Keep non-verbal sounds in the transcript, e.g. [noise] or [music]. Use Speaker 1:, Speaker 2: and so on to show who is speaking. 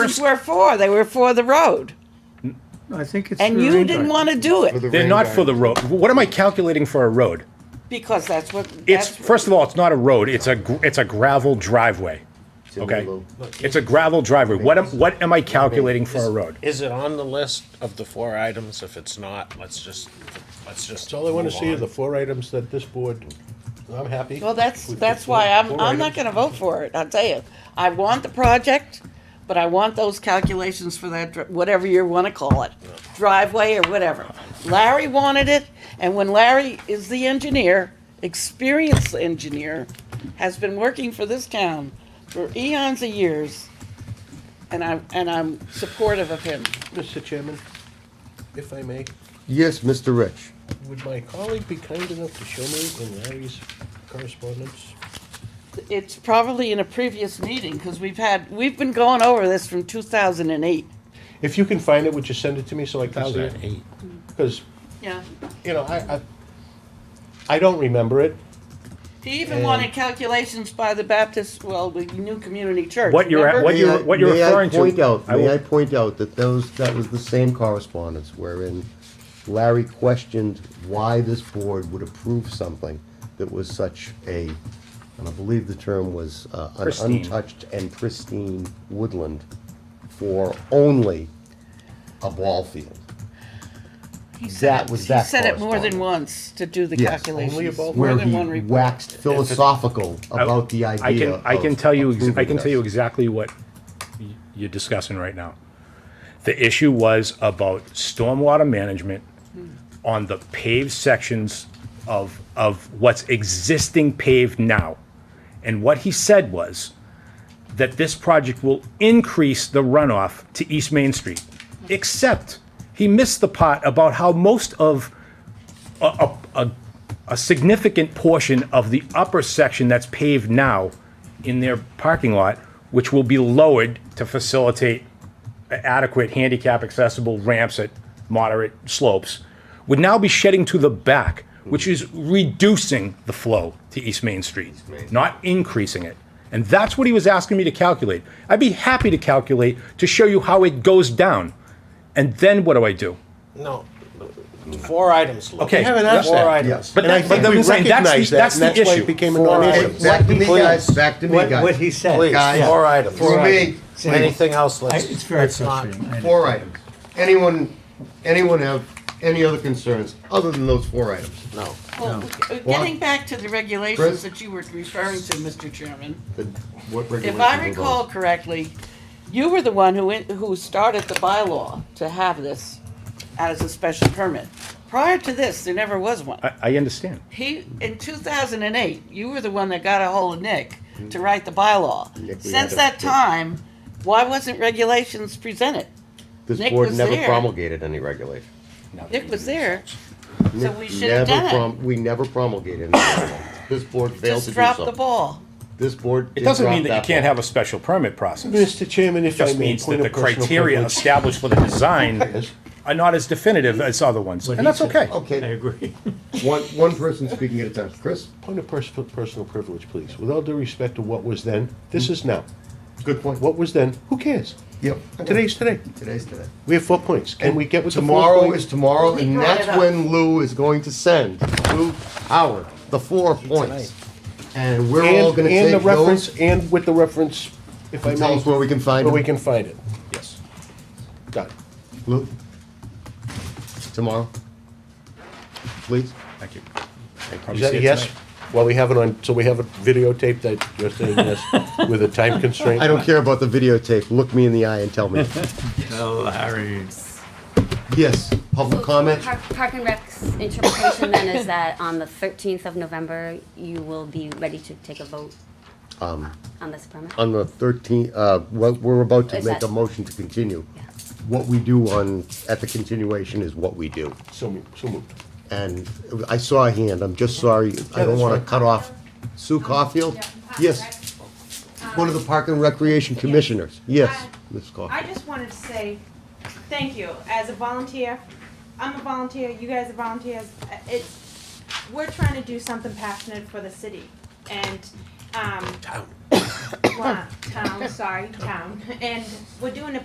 Speaker 1: were for. They were for the road.
Speaker 2: I think it's.
Speaker 1: And
Speaker 2: the
Speaker 1: you
Speaker 2: rain
Speaker 1: didn't
Speaker 2: garden.
Speaker 1: want to do it
Speaker 3: They're not for the road. What am I calculating for a road?
Speaker 1: because that's what.
Speaker 3: It's
Speaker 1: that's-
Speaker 3: first of all, it's not a road. It's a gr- it's a gravel driveway. Okay, it's a gravel driveway. What am what am I calculating for a road?
Speaker 4: Is it on the list of the four items? If it's not, let's just, let's just.
Speaker 5: That's all I want
Speaker 4: move
Speaker 5: to see are
Speaker 4: on.
Speaker 5: the four items that this board, I'm happy.
Speaker 1: Well, that's,
Speaker 5: with the
Speaker 1: that's
Speaker 5: four-
Speaker 1: why I'm,
Speaker 5: four
Speaker 1: I'm not
Speaker 5: items.
Speaker 1: gonna vote for it, I'll tell you. I want the project, but I want those calculations for that, dri- whatever you wanna call it, driveway or whatever. Larry wanted it, and when Larry is the engineer, experienced engineer, has been working for this town for eons of years, and I'm, and I'm supportive of him.
Speaker 5: Mr. Chairman, if I may,
Speaker 6: Yes, Mr. Rich.
Speaker 5: would my colleague be kind enough to show me in Larry's correspondence?
Speaker 1: It's probably in a previous meeting, cause we've had, we've been going over this from two thousand and eight.
Speaker 5: If you can find it, would you send it to me so I can see it?
Speaker 4: 2008.
Speaker 5: Because,
Speaker 1: Yeah.
Speaker 5: you know, I, I, I don't remember it.
Speaker 1: He even wanted calculations by the Baptist, well, the new community church.
Speaker 3: What you're at-
Speaker 1: remember?
Speaker 3: what you-
Speaker 6: May I-
Speaker 3: what you're referring to-
Speaker 6: May I point out,
Speaker 3: I
Speaker 6: may
Speaker 3: will-
Speaker 6: I point out that those, that was the same correspondence wherein Larry questioned why this board would approve something that was such a, and I believe the term was, uh, an
Speaker 3: Pristine.
Speaker 6: untouched and pristine woodland for only a ball field.
Speaker 1: He said
Speaker 6: that
Speaker 1: it-
Speaker 6: was that
Speaker 1: He said it more than once
Speaker 6: correspondence.
Speaker 1: to do the
Speaker 6: Yes.
Speaker 5: Only
Speaker 1: calculations.
Speaker 5: about
Speaker 1: More
Speaker 6: Where
Speaker 1: than
Speaker 6: he
Speaker 1: one report.
Speaker 6: waxed philosophical about the
Speaker 3: I
Speaker 6: idea
Speaker 3: can I can
Speaker 6: of
Speaker 3: tell you ex- I
Speaker 6: approving
Speaker 3: can tell you
Speaker 6: this.
Speaker 3: exactly what y- you're discussing right now. The issue was about stormwater management on the paved sections of of what's existing paved now. And what he said was that this project will increase the runoff to East Main Street. Except he missed the part about how most of a, a, a- a significant portion of the upper section that's paved now in their parking lot, which will be lowered to facilitate adequate handicap accessible ramps at moderate slopes, would now be shedding to the back, which is reducing the flow to East Main Street, not increasing it. And that's what he was asking me to calculate. I'd be happy to calculate to show you how it goes down. And then what do I do?
Speaker 4: No, four items. Lou.
Speaker 3: Okay.
Speaker 5: We haven't asked
Speaker 3: Four
Speaker 5: that.
Speaker 4: items.
Speaker 3: But
Speaker 5: And I
Speaker 3: that- but
Speaker 5: think
Speaker 3: that-
Speaker 5: we
Speaker 3: I'm saying that's the-
Speaker 5: recognize that,
Speaker 3: that's
Speaker 5: and
Speaker 3: the
Speaker 5: that's why
Speaker 3: issue.
Speaker 5: it became an
Speaker 4: Four
Speaker 5: non-issue.
Speaker 4: items.
Speaker 6: Back to me,
Speaker 4: Please.
Speaker 6: guys, back to me,
Speaker 2: What-
Speaker 6: guys.
Speaker 2: what he said.
Speaker 4: Please,
Speaker 6: Guys,
Speaker 4: four items.
Speaker 6: For me, please.
Speaker 4: Anything else?
Speaker 2: I-
Speaker 4: Let's.
Speaker 2: It's very
Speaker 4: let's not-
Speaker 2: frustrating. I know.
Speaker 6: Four items. Anyone, anyone have any other concerns other than those four items?
Speaker 4: No.
Speaker 1: Well, uh, Getting back to the regulations that you were referring to, Mr. Chairman.
Speaker 6: The- What
Speaker 1: If
Speaker 6: regulations
Speaker 1: I
Speaker 6: are
Speaker 1: recall correctly, you were the one who, in- who started the bylaw to have this as a special permit. Prior to this, there never was one.
Speaker 3: I, I understand.
Speaker 1: He, in 2008, you were the one that got a hold of Nick to write the bylaw.
Speaker 6: Nick, we
Speaker 1: Since
Speaker 6: had a-
Speaker 1: that time, why wasn't regulations presented?
Speaker 6: those? This
Speaker 1: Nick
Speaker 6: board
Speaker 1: was
Speaker 6: never
Speaker 1: there.
Speaker 6: promulgated any regulation.
Speaker 1: Nick was there, so
Speaker 6: Nick
Speaker 1: we should have
Speaker 6: never
Speaker 1: done it.
Speaker 6: prom- We never promulgated any regulation. This board failed to
Speaker 1: Just
Speaker 6: do
Speaker 1: drop the
Speaker 6: so.
Speaker 1: ball.
Speaker 6: This board
Speaker 3: It
Speaker 6: did
Speaker 3: doesn't mean
Speaker 6: drop
Speaker 3: that you can't
Speaker 6: ball.
Speaker 3: have a special permit process. It
Speaker 5: Mr. Chairman, if I
Speaker 3: just
Speaker 5: may,
Speaker 3: means that
Speaker 5: point
Speaker 3: the
Speaker 5: of personal
Speaker 3: criteria
Speaker 5: privilege.
Speaker 3: established for the
Speaker 5: [laughs]
Speaker 3: design
Speaker 5: Yes.
Speaker 3: are not as definitive as other ones,
Speaker 2: What
Speaker 3: and
Speaker 2: he
Speaker 3: that's
Speaker 2: said.
Speaker 3: okay.
Speaker 5: Oh.
Speaker 2: I
Speaker 6: Okay,
Speaker 2: agree.
Speaker 6: one, one person speaking at a time. Chris,
Speaker 5: Point of pers- personal privilege, please. With all due respect to what was then, this is now.
Speaker 6: good point.
Speaker 5: What was then, who cares?
Speaker 6: Yep.
Speaker 5: Today's today.
Speaker 6: Today's today.
Speaker 5: We have four points. Can we get with the four
Speaker 6: Tomorrow is
Speaker 5: points?
Speaker 6: tomorrow,
Speaker 1: He
Speaker 6: and
Speaker 1: brought
Speaker 6: that's
Speaker 1: it up.
Speaker 6: when Lou is going to send, Lou Howard, the four points. And we're all
Speaker 5: And,
Speaker 6: gonna
Speaker 5: and the
Speaker 6: take
Speaker 5: reference,
Speaker 6: those
Speaker 5: and with the reference, if I
Speaker 6: and tell
Speaker 5: may,
Speaker 6: us where we can find
Speaker 5: where we
Speaker 6: them.
Speaker 5: can find it.
Speaker 3: Yes.
Speaker 5: Done.
Speaker 6: Lou? Tomorrow? Please?
Speaker 3: Thank you.
Speaker 5: Is that a yes? Well, we have it on, so we have it videotaped that you're saying yes with a time constraint?
Speaker 6: I don't care about the videotape. Look me in the eye and tell
Speaker 5: [laughs]
Speaker 6: me.
Speaker 2: Larry.
Speaker 6: Yes, public comment?
Speaker 7: Park Park and Rec's interpretation then is that on the 13th of November, you will be ready to take a vote
Speaker 6: Um,
Speaker 7: on this permit?
Speaker 6: On the thirteenth, uh, well, we're about to
Speaker 7: Is
Speaker 6: make a
Speaker 7: that-
Speaker 6: motion to continue.
Speaker 7: Yeah.
Speaker 6: What we do on, at the continuation is what we do.
Speaker 5: So moved, so moved.
Speaker 6: And I saw a hand, I'm just sorry, I don't
Speaker 5: that's
Speaker 6: wanna
Speaker 5: fine.
Speaker 6: cut off Sue Caulfield? Yes, one of the Park and Recreation Commissioners, yes, Ms.
Speaker 8: I
Speaker 6: Caulfield.
Speaker 8: just wanted to say thank you as a volunteer. I'm a volunteer. You guys are volunteers. Uh, It's [coughs] we're trying to do something passionate for the city and um, want, town, sorry, town, and we're doing a